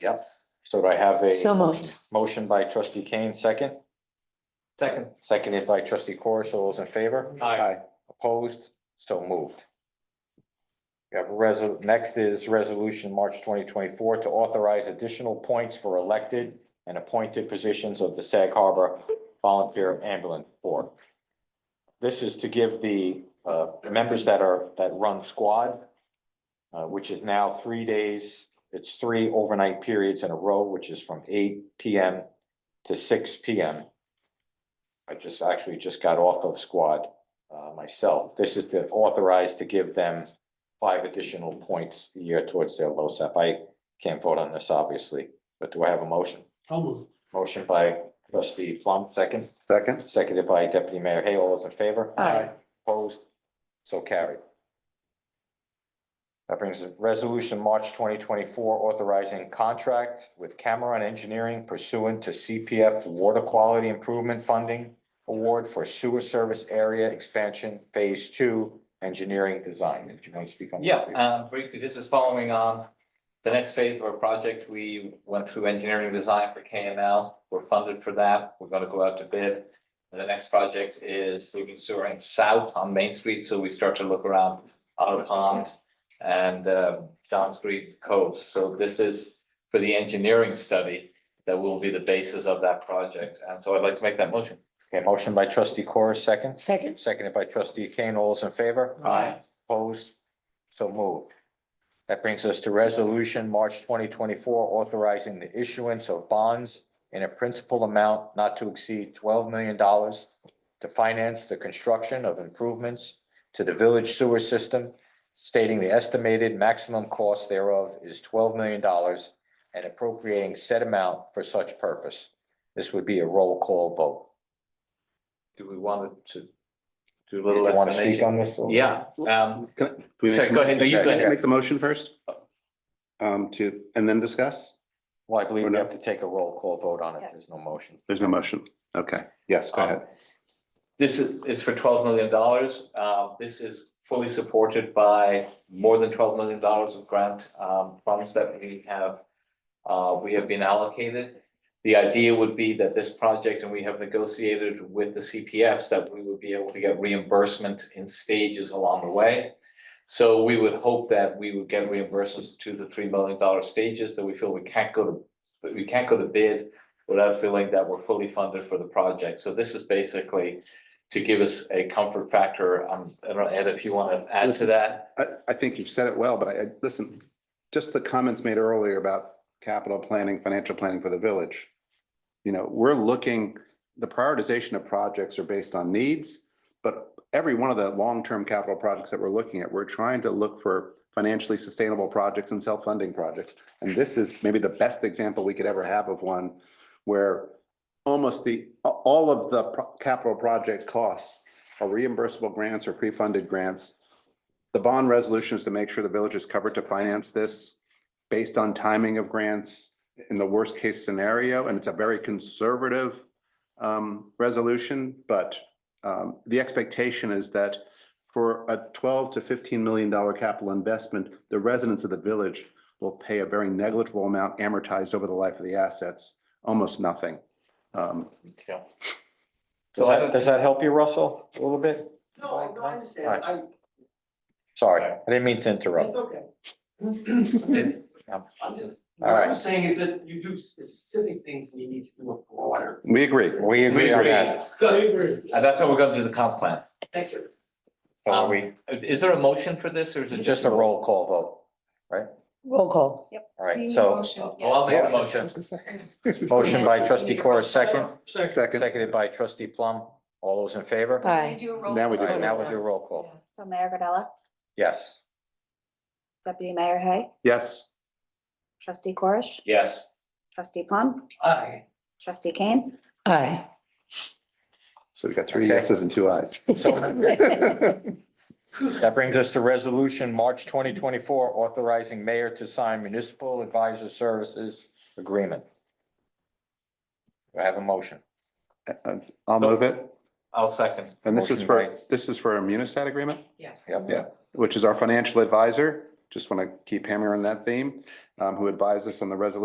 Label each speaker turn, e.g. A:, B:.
A: Yep. So do I have a?
B: So moved.
A: Motion by trustee Kane, second,
C: Second.
A: seconded by trustee Corr, so those in favor?
C: Aye.
A: Opposed, so moved. We have resol, next is resolution, March twenty twenty-four, to authorize additional points for elected and appointed positions of the Sag Harbor Volunteer Ambulance Corps. This is to give the, uh, members that are, that run squad, uh, which is now three days, it's three overnight periods in a row, which is from eight PM to six PM. I just, actually just got off of squad uh, myself. This is to authorize to give them five additional points a year towards their LoSAP. I can't vote on this, obviously, but do I have a motion?
C: So moved.
A: Motion by trustee Plum, second,
D: Second?
A: seconded by deputy mayor Hay. All those in favor?
B: Aye.
A: Opposed? So carried. That brings us resolution March twenty twenty-four authorizing contract with Cameron Engineering pursuant to CPF Water Quality Improvement Funding Award for Sewer Service Area Expansion Phase Two Engineering Design. Did you want to speak on? that?
E: Yeah, uh, briefly, this is following on the next phase of our project. We went through engineering design for KML. We're funded for that. We're gonna go out to bid. And the next project is moving sewer in south on Main Street, so we start to look around Otter Pond and uh, John Street Coves. So this is for the engineering study that will be the basis of that project. And so I'd like to make that motion.
A: Okay, motion by trustee Corr, second,
B: Second,
A: seconded by trustee Kane. All those in favor?
C: Aye.
A: Opposed? So moved. That brings us to resolution, March twenty twenty-four, authorizing the issuance of bonds in a principal amount not to exceed twelve million dollars to finance the construction of improvements to the village sewer system, stating the estimated maximum cost thereof is twelve million dollars and appropriating said amount for such purpose. This would be a roll call vote.
E: Do we want to do a
A: You
E: little
A: want to speak
E: explanation?
A: on this? or-
E: Yeah, um,
D: Can I- do we make
E: Sorry, go
D: the motion? Uh,
E: ahead. No, you go
D: Can I
E: ahead.
D: Make the motion first? Um, to, and then discuss?
A: Well, I believe
D: Or
A: we
D: no?
A: have to take a roll call vote on it. There's no motion.
D: There's no motion. Okay, yes, go
E: Um,
D: ahead.
E: This is, is for twelve million dollars. Um, this is fully supported by more than twelve million dollars of grant, um, funds that we have. Uh, we have been allocated. The idea would be that this project, and we have negotiated with the CPFs, that we would be able to get reimbursement in stages along the way. So we would hope that we would get reimbursements to the three million dollar stages that we feel we can't go to, that we can't go to bid without feeling that we're fully funded for the project. So this is basically to give us a comfort factor. Um, I don't know, Ed, if you want to add to that.
D: I, I think you've said it well, but I, I- listen, just the comments made earlier about capital planning, financial planning for the village. You know, we're looking, the prioritization of projects are based on needs, but every one of the long-term capital projects that we're looking at, we're trying to look for financially sustainable projects and self-funding projects. And this is maybe the best example we could ever have of one where almost the, all of the pro- capital project costs are reimbursable grants or pre-funded grants. The bond resolution is to make sure the village is covered to finance this based on timing of grants in the worst case scenario, and it's a very conservative um, resolution, but um, the expectation is that for a twelve to fifteen million dollar capital investment, the residents of the village will pay a very negligible amount amortized over the life of the assets, almost nothing. Um,
E: Yeah.
A: Does
E: So I
A: that,
E: don't-
A: does that help you, Russell, a little bit?
F: No, no, I understand, I,
A: Sorry, I didn't mean to interrupt.
F: it's okay. I'm just-
A: All
F: What
A: right.
F: I'm saying is that you do specific things and you need to do a broader.
D: We agree.
A: We agree on
E: agree.
A: that.
F: Good,
E: And that's what we're gonna do the comp plan.
F: thank you.
A: So are
E: Um,
A: we,
E: Is there a motion for this or is it
A: it's just a roll call vote.
B: roll call.
A: All right, so
E: Oh, I'll make a motion.
A: motion by trustee Corr, second,
D: Second,
A: seconded by trustee Plum. All those in favor? All
B: Aye.
D: now we do.
A: right,
D: the
A: now
D: vote.
A: we do roll call.
G: uh, So Mayor Gardella,
A: Yes.
G: Deputy Mayor Hay,
D: Yes.
G: Trustee Corish,
E: Yes.
G: Trustee Plum,
F: Aye.
G: Trustee Kane,
B: Aye.
D: So we got three
A: Okay.
D: yeses and two ayes.
A: That brings us to resolution, March twenty twenty-four, authorizing mayor to sign municipal advisor services agreement. Do I have a motion?
D: I'll move it.
E: I'll second.
D: And this is
A: Motion
D: for,
A: by-
D: this is for a Munisat agreement,
F: Yes.
A: Yep.
D: Yeah. which is our financial advisor. Just want to keep hammering that theme, um, who advised us on the resolution